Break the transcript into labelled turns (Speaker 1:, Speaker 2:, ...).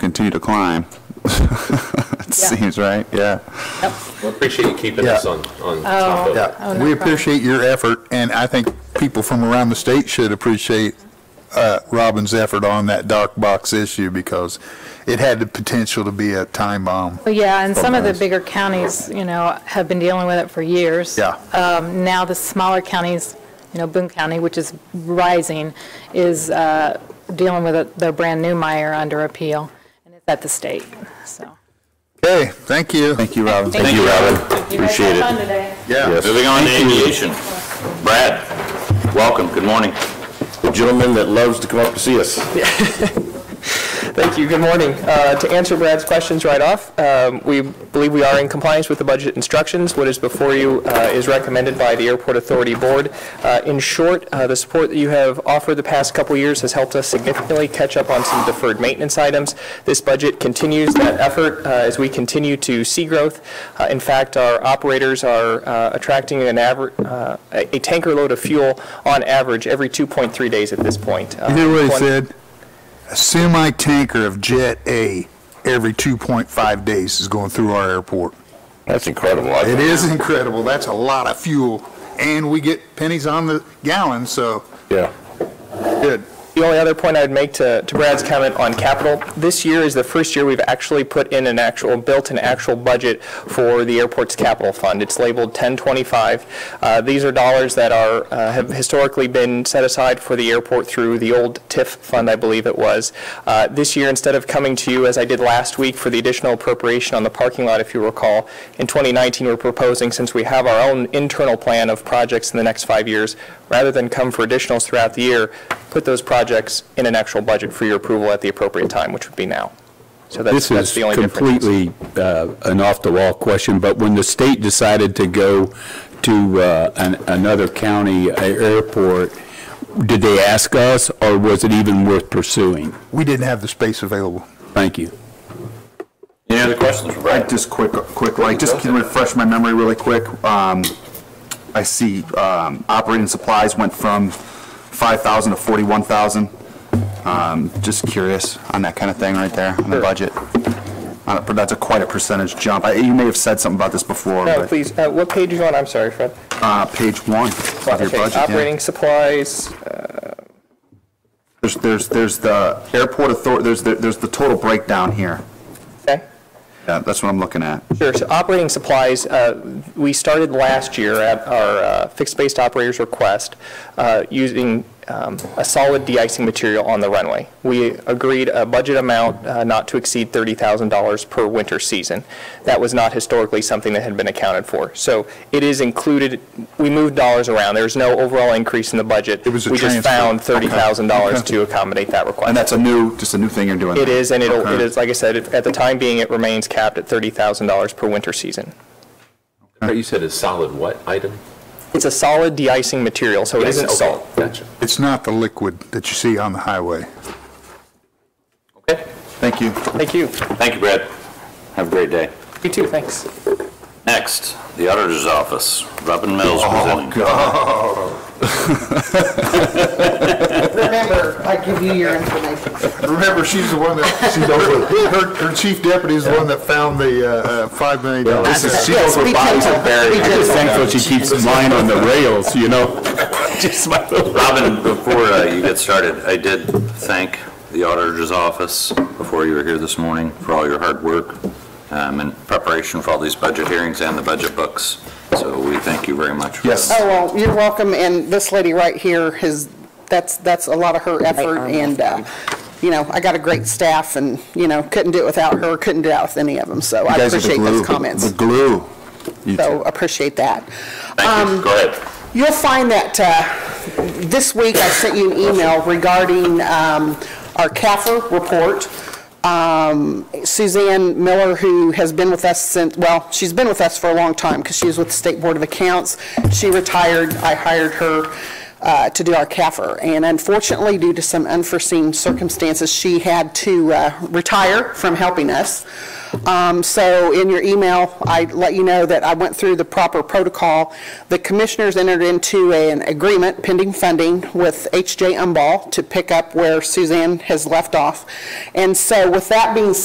Speaker 1: continue to climb. It seems right, yeah.
Speaker 2: We appreciate you keeping us on, on top of it.
Speaker 3: Oh,
Speaker 4: Yeah,
Speaker 3: no
Speaker 4: we
Speaker 3: problem.
Speaker 4: appreciate your effort, and I think people from around the state should appreciate uh, Robin's effort on that dark box issue because it had the potential to be a time bomb.
Speaker 3: Well, yeah, and some of the
Speaker 4: Organized.
Speaker 3: bigger counties, you know, have been dealing with it for years.
Speaker 4: Yeah.
Speaker 3: Um, Now, the smaller counties, you know, Boone County, which is rising, is uh, dealing with it- their brand-new mire under appeal, and it's at the state, so.
Speaker 4: Okay, thank you.
Speaker 1: Thank you, Robin.
Speaker 3: Thank you,
Speaker 5: Robin. Appreciate it.
Speaker 3: today.
Speaker 4: Yeah.
Speaker 5: Moving on to aviation. Brad, welcome, good morning.
Speaker 6: The gentleman that loves to come up to see us.
Speaker 7: Thank you. Good morning. Uh, To answer Brad's questions right off, um, we believe we are in compliance with the budget instructions. What is before you uh, is recommended by the Airport Authority Board. Uh, In short, uh, the support that you have offered the past couple years has helped us significantly catch up on some deferred maintenance items. This budget continues that effort uh, as we continue to see growth. Uh, In fact, our operators are uh, attracting an average, a a tanker load of fuel on average every 2.3 days at this point. Uh,
Speaker 4: You hear what he
Speaker 7: One-
Speaker 4: said? A semi-tanker of Jet A every 2.5 days is going through our airport.
Speaker 6: That's incredible. I
Speaker 4: It
Speaker 6: think-
Speaker 4: is incredible. That's a lot of fuel, and we get pennies on the gallon, so
Speaker 6: Yeah.
Speaker 4: good.
Speaker 7: The only other point I would make to to Brad's comment on capital, this year is the first year we've actually put in an actual, built an actual budget for the airport's capital fund. It's labeled 1025. Uh, These are dollars that are, uh, have historically been set aside for the airport through the old TIF fund, I believe it was. Uh, This year, instead of coming to you as I did last week for the additional appropriation on the parking lot, if you recall, in 2019, we're proposing, since we have our own internal plan of projects in the next five years, rather than come for additionals throughout the year, put those projects in an actual budget for your approval at the appropriate time, which would be now. So that's,
Speaker 8: This
Speaker 7: that's
Speaker 8: is
Speaker 7: the only difference.
Speaker 8: completely uh, an off-the-wall question, but when the state decided to go to uh, an- another county airport, did they ask us, or was it even worth pursuing?
Speaker 4: We didn't have the space available.
Speaker 8: Thank you.
Speaker 5: Any other questions for Brad?
Speaker 1: Just quick, quick, like, just can refresh my memory really quick. Um, I see um, operating supplies went from 5,000 to 41,000. Um, Just curious on that kind of thing right there, on the budget. On a- That's a quite a percentage jump. I- You may have said something about this before,
Speaker 7: No,
Speaker 1: but
Speaker 7: please, uh, what page are you on? I'm sorry, Fred.
Speaker 1: uh, page one of your
Speaker 7: Okay,
Speaker 1: budget. yeah.
Speaker 7: Operating supplies,
Speaker 1: There's, there's, there's the airport authority, there's, the- there's the total breakdown here.
Speaker 7: okay.
Speaker 1: Yeah, that's what I'm looking at.
Speaker 7: Sure. So operating supplies, uh, we started last year at our uh, fixed-based operator's request uh, using um, a solid de-icing material on the runway. We agreed a budget amount uh, not to exceed $30,000 per winter season. That was not historically something that had been accounted for. So it is included, we moved dollars around. There's no overall increase in the budget. It
Speaker 4: was a
Speaker 7: We just
Speaker 4: transfer.
Speaker 7: found
Speaker 4: Okay.
Speaker 7: $30,000 to accommodate that request.
Speaker 1: And that's a new, just a new thing you're doing.
Speaker 7: It is, and it'll, it
Speaker 1: Okay.
Speaker 7: is, like I said, it- at the time being, it remains capped at $30,000 per winter season.
Speaker 2: You said a solid what item?
Speaker 7: It's a solid de-icing material, so it isn't
Speaker 2: Okay,
Speaker 7: salt.
Speaker 2: Gotcha.
Speaker 4: It's not the liquid that you see on the highway.
Speaker 5: Okay.
Speaker 1: Thank you.
Speaker 7: Thank you.
Speaker 5: Thank you, Brad. Have a great day.
Speaker 7: You too, thanks.
Speaker 5: Next, the auditor's office, Robin
Speaker 6: Oh,
Speaker 5: Mills presenting.
Speaker 9: Remember, I give you your information.
Speaker 4: Remember, she's the one that, she's over, her, her chief deputy is the one that found the, uh, uh, five million dollars.
Speaker 1: She goes with bodies of buried.
Speaker 8: Just thankful she keeps mine on the rails, you know?
Speaker 5: Robin, before uh, you get started, I did thank the auditor's office before you were here this morning for all your hard work um, in preparation for all these budget hearings and the budget books. So we thank you very much. for
Speaker 1: Yes.
Speaker 5: that.
Speaker 9: Oh, well, you're welcome, and this lady right here has, that's, that's a lot of her effort, and, uh, you know, I got a great staff, and, you know, couldn't do it without her, couldn't do it with any of them, so I
Speaker 1: You guys are the
Speaker 9: appreciate
Speaker 1: glue-
Speaker 9: those
Speaker 1: The
Speaker 9: comments.
Speaker 1: glue. You two.
Speaker 9: So appreciate that.
Speaker 5: Thank you, go ahead.
Speaker 9: You'll find that uh, this week I sent you an email regarding um, our CAFR report. Um, Suzanne Miller, who has been with us since, well, she's been with us for a long time because she was with the State Board of Accounts. She retired, I hired her. uh, to do our CAFR. And unfortunately, due to some unforeseen circumstances, she had to uh, retire from helping us. Um, So in your email, I let you know that I went through the proper protocol. The commissioners entered into an agreement pending funding with H.J. Umball to pick up where Suzanne has left off. And so with that being